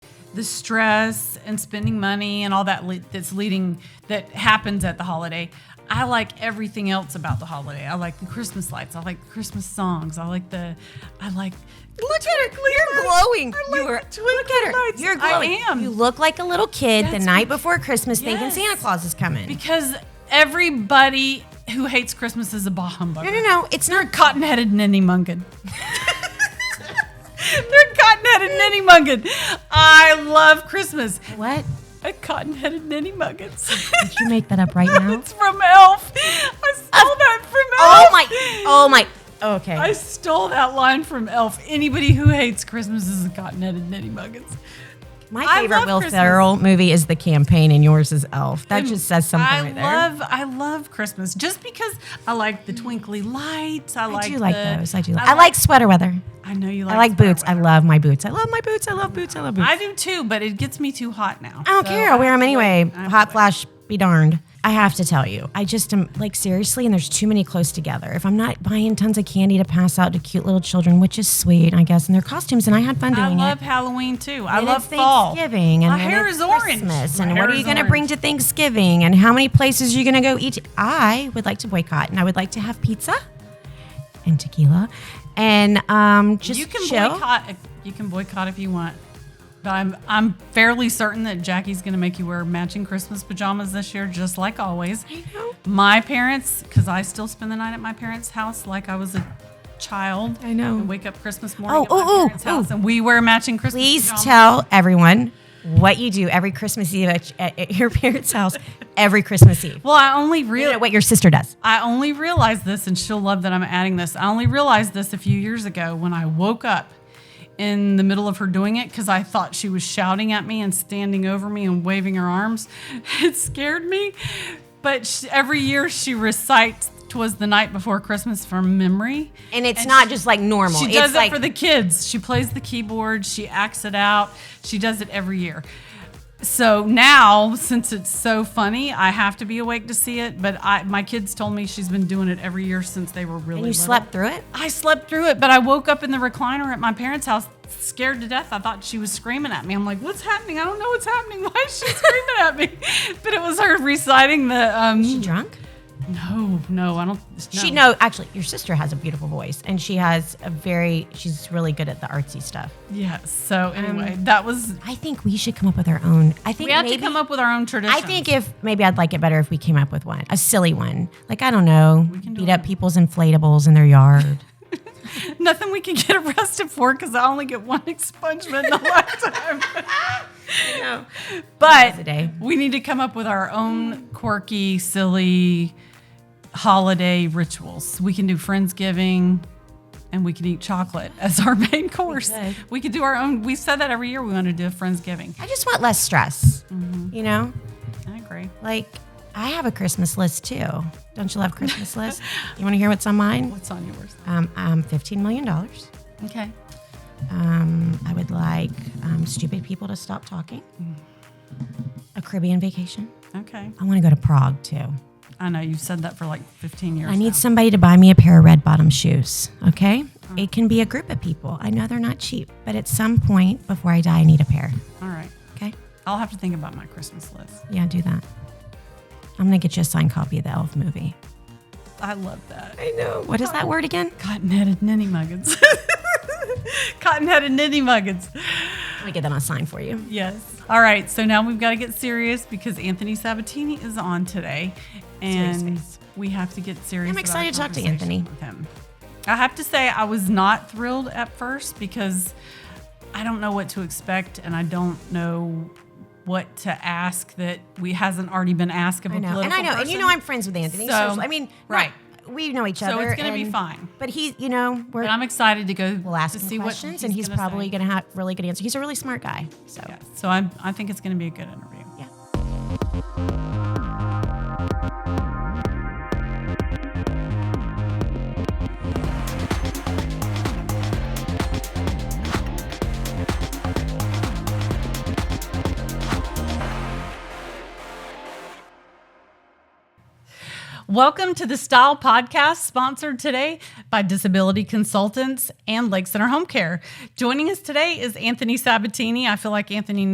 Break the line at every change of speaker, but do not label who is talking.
the stress and spending money and all that le- that's leading that happens at the holiday. I like everything else about the holiday. I like the Christmas lights. I like the Christmas songs. I like the, I like. Look at her,
You're glowing.
I
you
like
were.
the twinkle
Look at her.
lights.
You're
I
glowing.
am.
You look like a little kid
That's
the night before Christmas,
Yes.
thinking Santa Claus is coming.
Because everybody who hates Christmas is a bah humbug.
no, no, no. It's not. Co-
cotton headed ninny munkin. They're cotton headed ninny munkin. I love Christmas.
what?
A cotton headed ninny muggins.
Did you make that up right now?
it's from Elf. I stole that from
oh
Elf.
my. Oh my. Okay.
I stole that line from Elf. Anybody who hates Christmas is a cotton headed ninny muggins.
my
I
favorite
love
Will
Christmas.
Ferrell movie is The Campaign, and yours is Elf. That just says something
I
right there.
love I love Christmas just because I like the twinkly lights. I,
I
like
do like
the-
those. I do. Like, I like sweater weather.
I know you like
I like
sweater
boots. I
weather.
love my boots. I love my boots. I love boots. I love boots.
I do too, but it gets me too hot now.
I don't care. I'll wear them anyway.
I have
Hot
to
flash, be darned. I have to tell you, I just am like seriously, and there's too many close together. If I'm not buying tons of candy to pass out to cute little children, which is sweet, I guess, and their costumes, and I had fun doing
I love
it.
Halloween too. I
And
love
it's
fall.
Thanksgiving, and
My
then
hair
it's
is orange.
Christmas,
My
and
hair
what are you
is
going to bring
orange.
to Thanksgiving, and how many places are you going to go eat? I would like to boycott, and I would like to have pizza and tequila, and um, just
You can
chill.
boycott. if- You can boycott if you want, but I'm I'm fairly certain that Jackie's going to make you wear matching Christmas pajamas this year, just like always. I
know.
My parents, because I still spend the night at my parents' house, like I was a child.
I know.
And wake up Christmas morning
Oh,
at my
ooh, ooh,
parents' house,
ooh.
and we wear matching Christmas.
Please
pajamas.
tell everyone what you do every Christmas Eve at, at- at your parents' house every Christmas Eve.
Well, I only really
Look at what your sister does.
I only realized this, and she'll love that I'm adding this. I only realized this a few years ago when I woke up in the middle of her doing it because I thought she was shouting at me and standing over me and waving her arms. It scared me. But sh every year she recites "Twas the Night Before Christmas" from memory.
And it's
And
not
she-
just like normal.
She
it's
does it
like,
for the kids. She plays the keyboard. She acts it out. She does it every year. So now, since it's so funny, I have to be awake to see it. But I, my kids told me she's been doing it every year since they were really.
and you
little.
slept through it?
I slept through it, but I woke up in the recliner at my parents' house, scared to death. I thought she was screaming at me. I'm like, "What's happening? I don't know what's happening. Why is she screaming at me?" But it was her reciting the.
She
Um,
drunk?
no, no, I don't.
She no, actually, your sister has a beautiful voice, and she has a very. She's really good at the artsy stuff.
Yes. So anyway, that was.
I think we should come up with our own. I think
Um, We have
maybe,
to come up with our own tradition.
I think if maybe I'd like it better if we came up with one, a silly one, like I don't know,
can do
beat
it.
up people's inflatables in their yard.
Nothing we can get arrested for because I only get one expungement in a lifetime.
but today,
we need to come up with our own quirky, silly holiday rituals. We can do Friendsgiving and we can eat chocolate as our main course.
could.
We could do our own. We said that every year we want to do a Friendsgiving.
I just want less stress.
Mm-hmm.
You know,
I agree.
like I have a Christmas list too. Don't you love Christmas lists? You want to hear what's on mine?
What's on yours?
Um, um, fifteen million dollars.
Okay.
Um, I would like um, stupid people to stop talking. A Caribbean vacation.
Okay.
I want to go to Prague too.
I know you've said that for like 15 years.
I need somebody to buy me a pair of red bottom shoes. Okay. It can be a group of people. I know they're not cheap, but at some point before I die, I need a pair.
All right.
Okay.
I'll have to think about my Christmas list.
Yeah, do that. I'm going to get you a signed copy of the Elf movie.
I love that.
I know. What is that word again?
Cotton-headed ninny muggins. Cotton-headed ninny muggins.
Let me get that on sign for you.
Yes. All right. So now we've got to get serious because Anthony Sabatini is on today, and
Serious face.
we have to get serious.
I'm
about
excited
our
to talk to
conversation
Anthony.
With him. I have to say I was not thrilled at first because I don't know what to expect, and I don't know what to ask that we hasn't already been asked of a
I know. And
political
I know. And you know,
person.
I'm friends with Anthony. So,
So-
I mean,
right.
We know each
So
other.
it's gonna be
and-
fine.
But he, you know, we're,
But I'm excited to go
we'll ask
to
him
see
questions,
what
and he's
gonna say.
probably going to have really good answers. He's a really smart guy. So,
Yeah, so I'm, I think it's going to be a good interview.
yeah.
Welcome to the Style Podcast, sponsored today by Disability Consultants and Lake Center Home Care. Joining us today is Anthony Sabatini. I feel like Anthony